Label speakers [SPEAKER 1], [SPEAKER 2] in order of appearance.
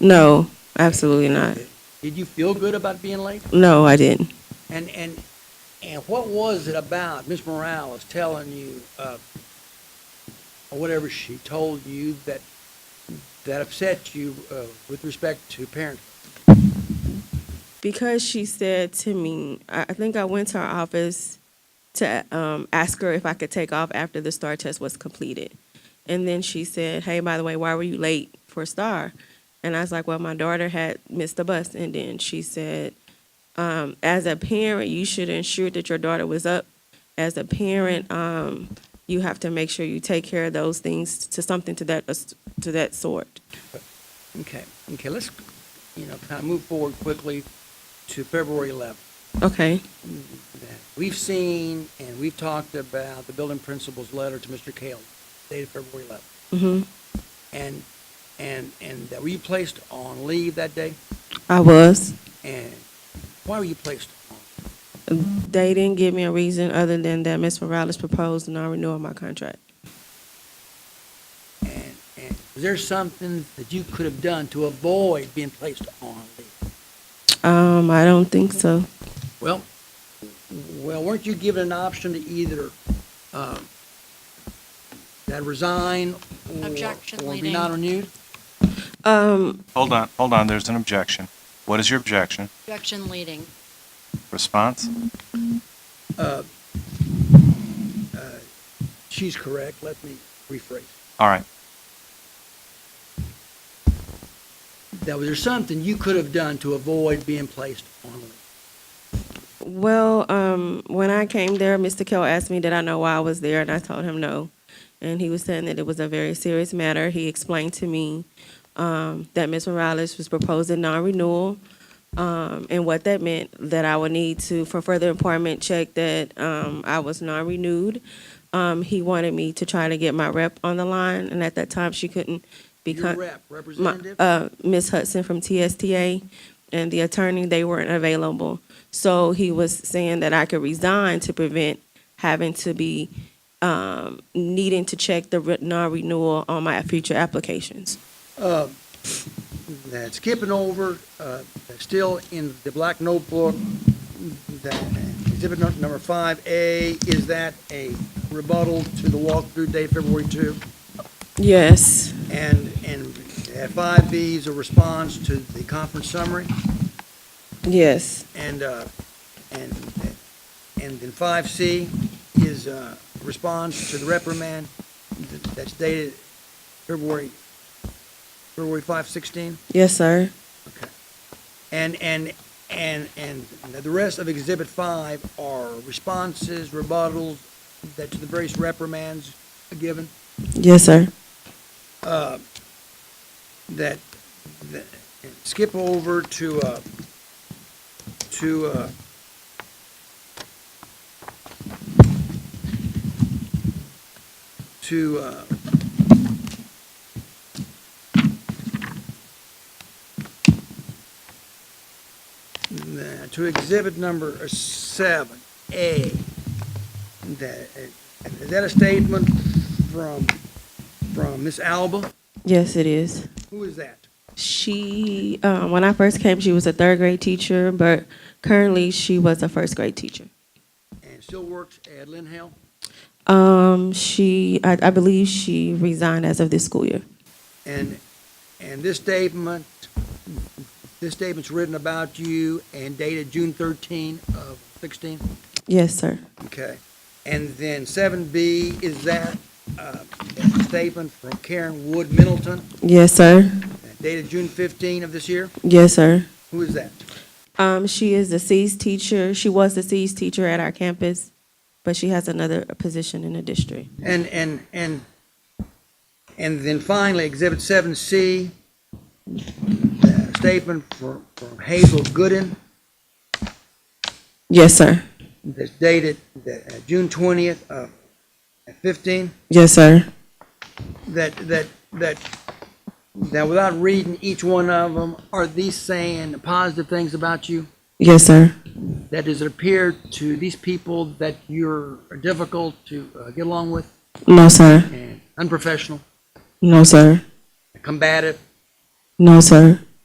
[SPEAKER 1] No, absolutely not.
[SPEAKER 2] Did you feel good about being late?
[SPEAKER 1] No, I didn't.
[SPEAKER 2] And and and what was it about Miss Morales telling you, uh, or whatever she told you that that upset you uh, with respect to parents?
[SPEAKER 1] Because she said to me, I I think I went to her office to um, ask her if I could take off after the STAR test was completed. And then she said, Hey, by the way, why were you late for STAR? And I was like, Well, my daughter had missed the bus. And then she said, um, As a parent, you should ensure that your daughter was up. As a parent, um, you have to make sure you take care of those things to something to that to that sort.
[SPEAKER 2] Okay, okay, let's you know kind of move forward quickly to February 11th.
[SPEAKER 1] Okay.
[SPEAKER 2] that we've seen and we've talked about the building principal's letter to Mr. Kale dated February 11th.
[SPEAKER 1] hmm
[SPEAKER 2] And, and, and that were you placed on leave that day?
[SPEAKER 1] I was.
[SPEAKER 2] And why were you placed on?
[SPEAKER 1] They didn't give me a reason other than that Ms. Morales proposed non-renewing my contract.
[SPEAKER 2] And, and was there something that you could have done to avoid being placed on leave?
[SPEAKER 1] Um, I don't think so.
[SPEAKER 2] Well, well, weren't you given an option to either, um, that resign or,
[SPEAKER 3] Objection
[SPEAKER 2] or be
[SPEAKER 3] leading.
[SPEAKER 2] not renewed?
[SPEAKER 1] Um,
[SPEAKER 4] Hold on, hold on, there's an objection. What is your objection?
[SPEAKER 3] Objection leading.
[SPEAKER 4] Response?
[SPEAKER 2] Uh, uh, She's correct. Let me rephrase.
[SPEAKER 4] All right,
[SPEAKER 2] That was there something you could have done to avoid being placed on leave?
[SPEAKER 1] well, um, when I came there, Mr. Kell asked me did I know why I was there, and I told him no. And he was saying that it was a very serious matter. He explained to me, um, that Ms. Morales was proposing non-renewal, um, and what that meant, that I would need to, for further employment, check that, um, I was non-renewed. Um, he wanted me to try to get my rep on the line, and at that time, she couldn't
[SPEAKER 2] Your
[SPEAKER 1] become.
[SPEAKER 2] rep,
[SPEAKER 1] my,
[SPEAKER 2] representative?
[SPEAKER 1] uh, Ms. Hudson from TSTA and the attorney, they weren't available. So he was saying that I could resign to prevent having to be, um, needing to check the re- non-renewal on my future applications.
[SPEAKER 2] Uh, That skipping over, uh, still in the black notebook, that exhibit nu- number five A, is that a rebuttal to the walkthrough date February two?
[SPEAKER 1] Yes,
[SPEAKER 2] And, and at five B is a response to the conference summary?
[SPEAKER 1] yes,
[SPEAKER 2] And, uh, and, and then five C is, uh, response to the reprimand th- that's dated February, February five sixteen?
[SPEAKER 1] yes, sir.
[SPEAKER 2] Okay. And, and, and, and the rest of exhibit five are responses, rebuttals that to the various reprimands given,
[SPEAKER 1] Yes, sir.
[SPEAKER 2] uh, that, that, skip over to, uh, to, uh, to, uh, the- to exhibit number seven, A. That, is that a statement from, from Miss Alba?
[SPEAKER 1] Yes, it is.
[SPEAKER 2] Who is that?
[SPEAKER 1] She, uh, when I first came, she was a third grade teacher, but currently she was a first grade teacher.
[SPEAKER 2] and still works at Lynn Hill.
[SPEAKER 1] Um, she, I, I believe she resigned as of this school year.
[SPEAKER 2] And, and this statement, this statement's written about you and dated June 13 of 16?
[SPEAKER 1] Yes, sir.
[SPEAKER 2] Okay. And then 7B, is that uh, a statement from Karen Wood Middleton
[SPEAKER 1] Yes, sir.
[SPEAKER 2] dated June 15 of this year?
[SPEAKER 1] Yes, sir.
[SPEAKER 2] Who is that?
[SPEAKER 1] Um, she is the C's teacher. She was the C's teacher at our campus, but she has another position in the district.
[SPEAKER 2] And, and, and, and then finally, Exhibit 7C, uh, statement from from Hazel Gooden
[SPEAKER 1] Yes, sir.
[SPEAKER 2] that's dated uh, June uh, 20th of 15,
[SPEAKER 1] Yes, sir.
[SPEAKER 2] that, that, that, that without reading each one of them, are these saying positive things about you?
[SPEAKER 1] Yes, sir.
[SPEAKER 2] That does it appear to these people that you're difficult to uh, get along with
[SPEAKER 1] No, sir.
[SPEAKER 2] and unprofessional,
[SPEAKER 1] No, sir.
[SPEAKER 2] combative,
[SPEAKER 1] No, sir.